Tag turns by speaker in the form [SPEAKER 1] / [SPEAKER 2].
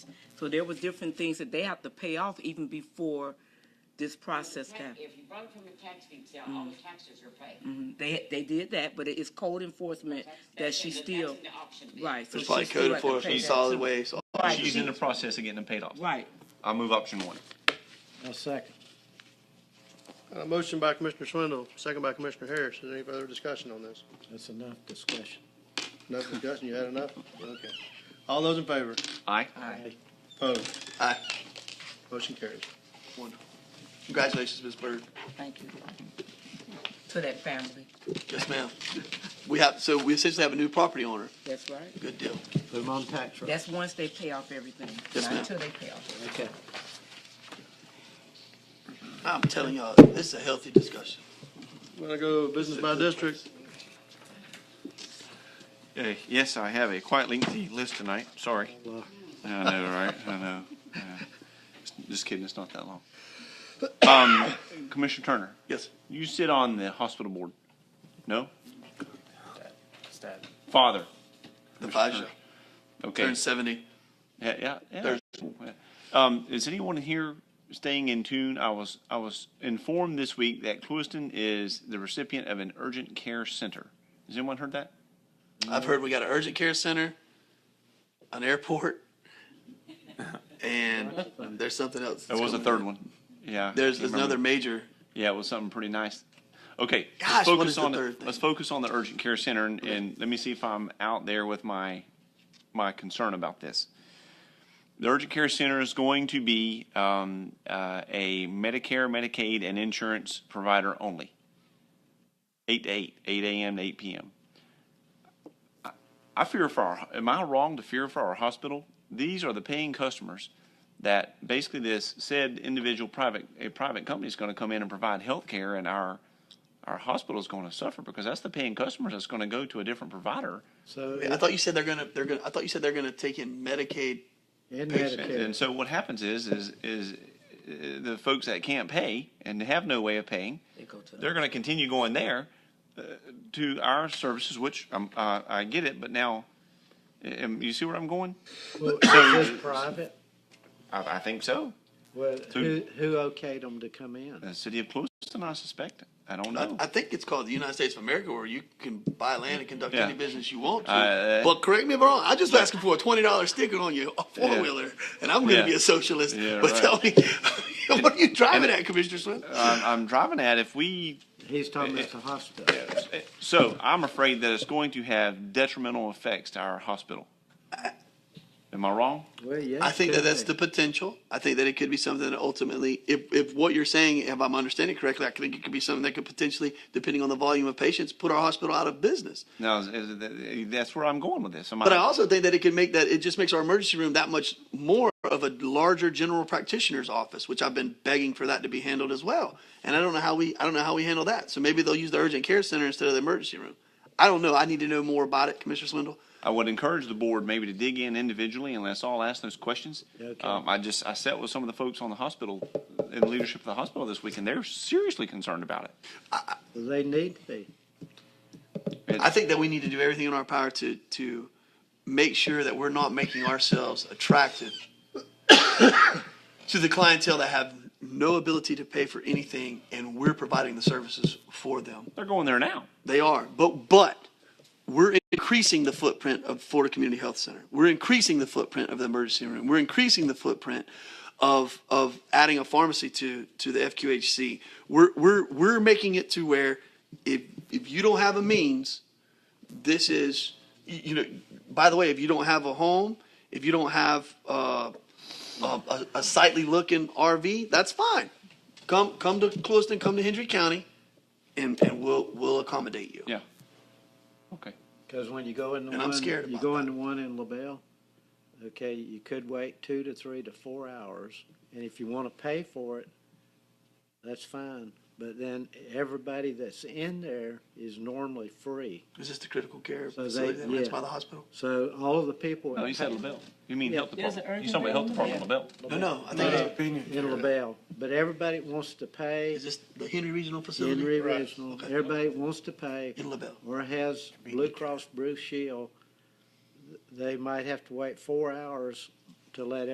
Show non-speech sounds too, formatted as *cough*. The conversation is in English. [SPEAKER 1] So there was different things that they have to pay off even before this process happened.
[SPEAKER 2] If you run from the tax detail, all
[SPEAKER 1] Mm.
[SPEAKER 2] the taxes are paid.
[SPEAKER 1] They, they did that, but it's code enforcement
[SPEAKER 2] That's-
[SPEAKER 1] Mm. that
[SPEAKER 2] that's
[SPEAKER 1] she
[SPEAKER 2] in the- that's
[SPEAKER 1] still,
[SPEAKER 2] in the auction bid.
[SPEAKER 1] right. so
[SPEAKER 3] It's
[SPEAKER 1] she
[SPEAKER 3] like
[SPEAKER 1] still
[SPEAKER 3] code
[SPEAKER 1] had to pay
[SPEAKER 3] enforcement,
[SPEAKER 1] that
[SPEAKER 3] solid
[SPEAKER 1] too.
[SPEAKER 3] waste. all-
[SPEAKER 1] Right,
[SPEAKER 3] She's
[SPEAKER 1] she-
[SPEAKER 3] in the process of getting them paid off.
[SPEAKER 1] Right,
[SPEAKER 3] I move option one.
[SPEAKER 4] I'll second.
[SPEAKER 5] Got a Uh, motion by Commissioner Swindle, second by Commissioner Harris. Is there any further discussion on this?
[SPEAKER 4] That's enough discussion.
[SPEAKER 5] Enough discussion, you had enough? Okay. All those in favor?
[SPEAKER 3] Aye.
[SPEAKER 4] Aye.
[SPEAKER 5] Opposed?
[SPEAKER 3] Aye.
[SPEAKER 5] Motion carries.
[SPEAKER 3] Wonderful. Congratulations, Ms. Bird.
[SPEAKER 1] thank you. To that family,
[SPEAKER 3] Yes, ma'am. We have, so we essentially have a new property owner.
[SPEAKER 1] that's right.
[SPEAKER 3] Good deal.
[SPEAKER 4] Put them on tax roll.
[SPEAKER 1] That's once they pay off everything,
[SPEAKER 3] Yes,
[SPEAKER 1] not
[SPEAKER 3] ma'am.
[SPEAKER 1] until they pay off.
[SPEAKER 4] Okay.
[SPEAKER 3] I'm telling y'all, this is a healthy discussion.
[SPEAKER 5] I'm gonna go business by district.
[SPEAKER 6] Uh, Yes, I have a quite lengthy list tonight, sorry.
[SPEAKER 4] Well,
[SPEAKER 6] I know, right, I know. Yeah. Just kidding, it's not that long. Um, Commissioner Turner,
[SPEAKER 3] Yes.
[SPEAKER 6] you sit on the hospital board, no? Father,
[SPEAKER 3] The five shall
[SPEAKER 6] okay.
[SPEAKER 3] turn seventy.
[SPEAKER 6] Yeah, yeah, yeah. Um, is anyone here staying in tune? I was, I was informed this week that Clewiston is the recipient of an urgent care center. Has anyone heard that?
[SPEAKER 3] I've heard we got an urgent care center, an airport, *laughs* and there's something else.
[SPEAKER 6] There
[SPEAKER 3] that's
[SPEAKER 6] was a
[SPEAKER 3] coming.
[SPEAKER 6] third one. Yeah.
[SPEAKER 3] There's,
[SPEAKER 6] can't
[SPEAKER 3] there's
[SPEAKER 6] remember.
[SPEAKER 3] another major.
[SPEAKER 6] Yeah, it was something pretty nice. Okay,
[SPEAKER 3] Gosh,
[SPEAKER 6] let's
[SPEAKER 3] what
[SPEAKER 6] focus
[SPEAKER 3] is the
[SPEAKER 6] on
[SPEAKER 3] third thing?
[SPEAKER 6] let's focus on the urgent care center and, and let me see if I'm out there with my my concern about this. The urgent care center is going to be um, uh, a Medicare, Medicaid, and insurance provider only. Eight to eight, eight a.m. to eight p.m. I- I fear for our. Am I wrong to fear for our hospital? These are the paying customers that basically this said individual private a private company is going to come in and provide health care and our our hospital is going to suffer because that's the paying customers that's going to go to a different provider
[SPEAKER 4] So,
[SPEAKER 3] I thought you said they're gonna, they're gonna, I thought you said they're gonna take in Medicaid.
[SPEAKER 4] in
[SPEAKER 6] And,
[SPEAKER 4] Medicare,
[SPEAKER 6] and so what happens is is is uh, the folks that can't pay and have no way of paying,
[SPEAKER 1] They go to the-
[SPEAKER 6] they're going to continue going there uh, to our services, which um, uh, I get it. But now, um, you see where I'm going?
[SPEAKER 4] well, is this private?
[SPEAKER 6] I, I think so.
[SPEAKER 4] Well, who,
[SPEAKER 6] Two.
[SPEAKER 4] who okayed them to come in?
[SPEAKER 6] The city of Clewiston, I suspect. I don't
[SPEAKER 3] I,
[SPEAKER 6] know.
[SPEAKER 3] I think it's called the United States of America where you can buy land and conduct
[SPEAKER 6] Yeah.
[SPEAKER 3] any business you want to.
[SPEAKER 6] Uh,
[SPEAKER 3] but correct me if I'm wrong, I just asking for a twenty dollar sticker on your four wheeler and I'm gonna
[SPEAKER 6] Yeah.
[SPEAKER 3] be a socialist.
[SPEAKER 6] Yeah,
[SPEAKER 3] but
[SPEAKER 6] right.
[SPEAKER 3] tell me *laughs* what are you driving at, Commissioner Swindle?
[SPEAKER 6] I'm, I'm driving at if we
[SPEAKER 4] He's talking about the hospital.
[SPEAKER 6] So I'm afraid that it's going to have detrimental effects to our hospital. Am I wrong?
[SPEAKER 4] Well, yeah.
[SPEAKER 3] I think that
[SPEAKER 4] could
[SPEAKER 3] that's
[SPEAKER 4] be.
[SPEAKER 3] the potential. I think that it could be something that ultimately, if, if what you're saying, if I'm understanding correctly, I think it could be something that could potentially, depending on the volume of patients, put our hospital out of business.
[SPEAKER 6] No, is- is- that's where I'm going with this. Am
[SPEAKER 3] But I also think that it could make that, it just makes our emergency room that much more of a larger general practitioner's office, which I've been begging for that to be handled as well. And I don't know how we, I don't know how we handle that. So maybe they'll use the urgent care center instead of the emergency room. I don't know. I need to know more about it, Commissioner Swindle.
[SPEAKER 6] I would encourage the board maybe to dig in individually and let's all ask those questions.
[SPEAKER 4] Okay.
[SPEAKER 6] Um, I just, I sat with some of the folks on the hospital, in the leadership of the hospital this week, and they're seriously concerned about it.
[SPEAKER 4] They need to be.
[SPEAKER 3] I think that we need to do everything in our power to to make sure that we're not making ourselves attractive *coughs* to the clientele that have no ability to pay for anything, and we're providing the services for them.
[SPEAKER 6] They're going there now.
[SPEAKER 3] They are, but but we're increasing the footprint of Florida Community Health Center. We're increasing the footprint of the emergency room. We're increasing the footprint of of adding a pharmacy to to the FQHC. We're we're we're making it to where if if you don't have a means, this is you you know. By the way, if you don't have a home, if you don't have uh, a, a, a sightly looking RV, that's fine. Come come to Clewiston, come to Hendry County, and and we'll we'll accommodate you.
[SPEAKER 6] Yeah. Okay.
[SPEAKER 4] Because when you go into
[SPEAKER 3] And I'm
[SPEAKER 4] one,
[SPEAKER 3] scared
[SPEAKER 4] you
[SPEAKER 3] about
[SPEAKER 4] go
[SPEAKER 3] that.
[SPEAKER 4] into one in LaBelle, okay, you could wait two to three to four hours, and if you want to pay for it, that's fine. But then everybody that's in there is normally free.
[SPEAKER 3] Is this the critical care
[SPEAKER 4] So
[SPEAKER 3] facility
[SPEAKER 4] they-
[SPEAKER 3] that runs
[SPEAKER 4] yeah.
[SPEAKER 3] by the hospital?
[SPEAKER 4] So all of the people
[SPEAKER 6] No, you said LaBelle. You mean health
[SPEAKER 1] There's an
[SPEAKER 6] department. You
[SPEAKER 1] urgent
[SPEAKER 6] talking about health
[SPEAKER 1] care in
[SPEAKER 6] department, LaBelle.
[SPEAKER 3] No, no, I think it's,
[SPEAKER 4] in LaBelle, but everybody wants to pay.
[SPEAKER 3] is this the Henry Regional Facility?
[SPEAKER 4] Henry Regional,
[SPEAKER 3] Okay.
[SPEAKER 4] everybody wants to pay.
[SPEAKER 3] In LaBelle.
[SPEAKER 4] Or has Blue Cross Blue Shield, they might have to wait four hours to let